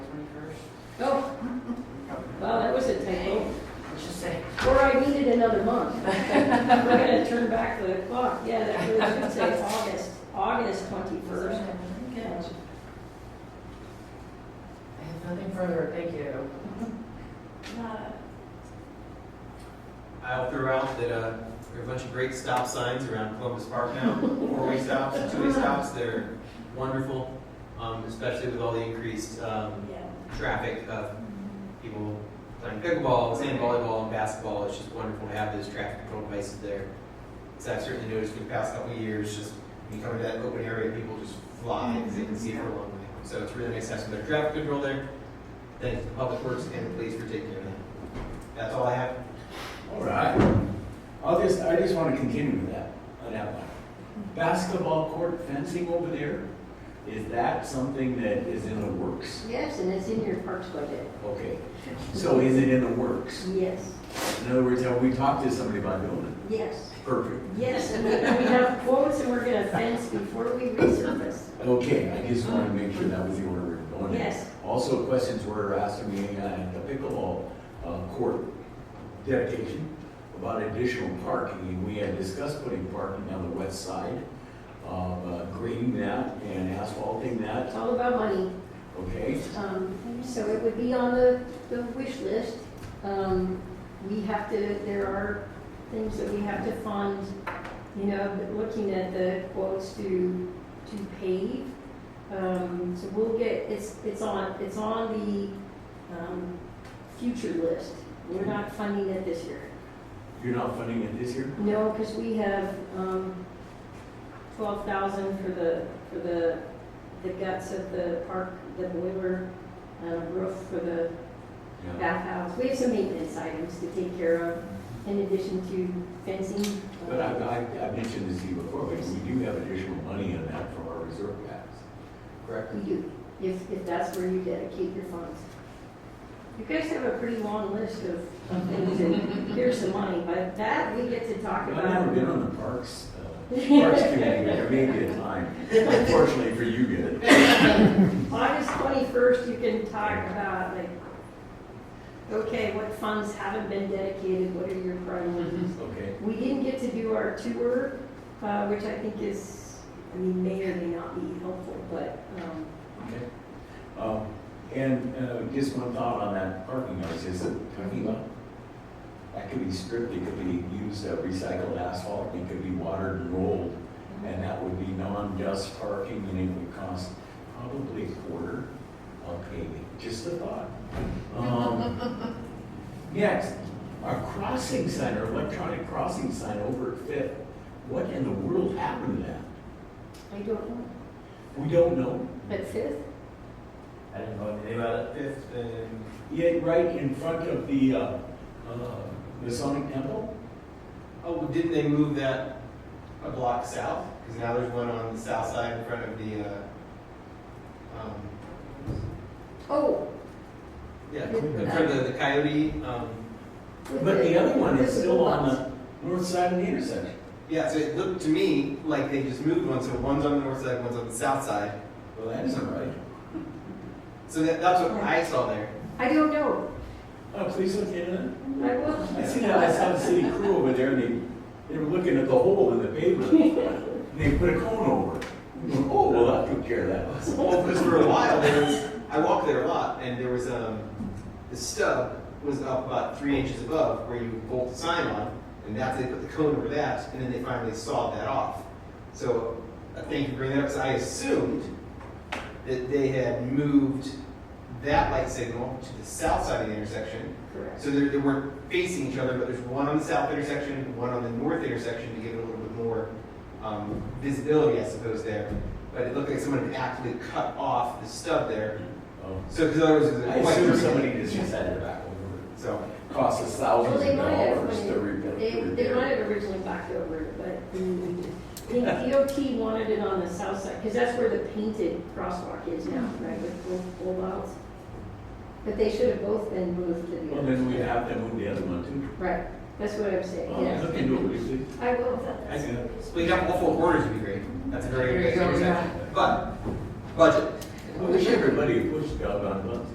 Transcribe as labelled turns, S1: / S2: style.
S1: Oh, wow, that was a tangle.
S2: Just say,
S1: Or I needed another month. We're gonna turn back the clock. Yeah, that really should say August, August
S2: first.
S1: twenty-first.
S2: I have nothing further, thank you.
S3: I'll throw out that uh, there are a bunch of great stop signs around Columbus Park now, four-way stops, two-way stops, they're wonderful, um, especially with all the increased um, traffic of people playing pickleball, sand volleyball, and basketball. It's just wonderful to have those traffic control devices there. So I've certainly noticed for the past couple of years, just when you come to that open area, people just fly because they can see for a long way. So it's really nice to have some better traffic control there. Thanks to Public Works and the police for taking care of that. That's all I have.
S4: All right. I'll just, I just want to continue with that, on that one. Basketball court fencing over there, is that something that is in the works?
S1: Yes, and it's in your parks budget.
S4: Okay, so is it in the works?
S1: Yes,
S4: In other words, have we talked to somebody about doing
S1: yes,
S4: it? Perfect.
S1: yes. And we we have quotes and we're gonna fence before we resurface.
S4: Okay, I just want to make sure that was the order we we're going in.
S1: Yes.
S4: Also, questions were asked of me at the pickleball uh, court dedication about additional parking, and we had discussed putting parking on the west side, of, uh, grading that and asphalting
S1: It's
S4: that,
S1: all about money.
S4: okay?
S1: Um, So it would be on the, the wish list. Um, We have to, there are things that we have to fund, you know, but looking at the quotes to, to pave. Um, So we'll get, it's, it's on, it's on the um, future list. We're not funding it this year.
S4: You're not funding it this year?
S1: No, because we have um, twelve thousand for the, for the, the guts of the park, the boiler, uh, roof for the
S4: Yeah.
S1: bathhouse. We have some maintenance items to take care of in addition to fencing.
S4: But I, I, I mentioned this to you before, but we do have additional money in that for our reserve tax.
S3: Correct.
S1: We do, if, if that's where you dedicate your funds. You guys have a pretty long list of of things and here's some money, but that we get to talk
S4: I've
S1: about.
S4: never been on the parks, uh, parks committee, but there may be a time, unfortunately for you guys.
S1: August twenty-first, you can talk about like, okay, what funds haven't been dedicated, what are your priorities?
S4: Okay,
S1: We didn't get to do our tour, uh, which I think is, I mean, may or may not be helpful, but, um,
S4: okay. Um, And uh, just one thought on that parking lot, is it talking about? That could be stripped, it could be used uh, recycled asphalt, it could be watered and rolled, and that would be non-dust parking, and it would cost probably a quarter of paving, just a thought. Um, Next, a crossing sign or electronic crossing sign over at Fifth, what in the world happened to that?
S1: I don't know.
S4: We don't know.
S1: But fifth,
S3: I didn't know anything about it. Fifth and
S4: Yeah, right in front of the, uh, uh, Masonic Temple?
S3: oh, well, didn't they move that a block south? Because now there's one on the south side in front of the. Uh, um,
S1: oh.
S3: yeah, in front of the, the coyote. Um,
S1: with
S4: But the other one is
S1: with
S4: still on
S1: box.
S4: the north side of the intersection.
S3: yeah, so it looked to me like they just moved one. So one's on the north side, one's on the south side.
S4: Well, that isn't right.
S3: So that, that's what I saw there.
S1: I don't know,
S4: Oh, please look into that.
S1: I will.
S4: I see that, I saw the city crew over there, and they, they were looking at the hole in the pavement, and they put a cone over it. Oh, well, that took care of that.
S3: Well, because for a while there was, I walked there a lot, and there was um, the stub was up about three inches above where you bolt the sign on, and that's they put the cone over that, and then they finally sawed that off. So uh, thank you for bringing that up. 'cause I assumed that they had moved that light signal to the south side of the intersection,
S1: Correct.
S3: so they they weren't facing each other, but there's one on the south intersection, and one on the north intersection to give it a little bit more um, visibility, I suppose, there. But it looked like someone had actively cut off the stub there.
S4: Oh.
S3: So, because otherwise it was
S4: I
S3: quite.
S4: assume
S3: crooked.
S4: somebody just decided to back over
S3: So,
S4: it. Costs us
S1: Well,
S4: thousands
S1: they
S4: of
S1: might have,
S4: dollars to
S1: when
S4: repair.
S1: they, they might have originally backed over, it, but mm, I think DOT wanted it on the south side, because that's where the painted crosswalk is now, right, with full, full outs. But they should have both been moved to the
S4: Well,
S1: other.
S4: then we have to move the other one too.
S1: Right, that's what I'm saying,
S4: Well,
S1: yeah.
S4: Look into it, would you
S1: I will.
S3: I see that. Splitting up all four corners would be great. That's a very good
S2: There you go,
S3: idea.
S2: yeah.
S3: But, budget.
S4: please? I wish everybody pushed God on buttons.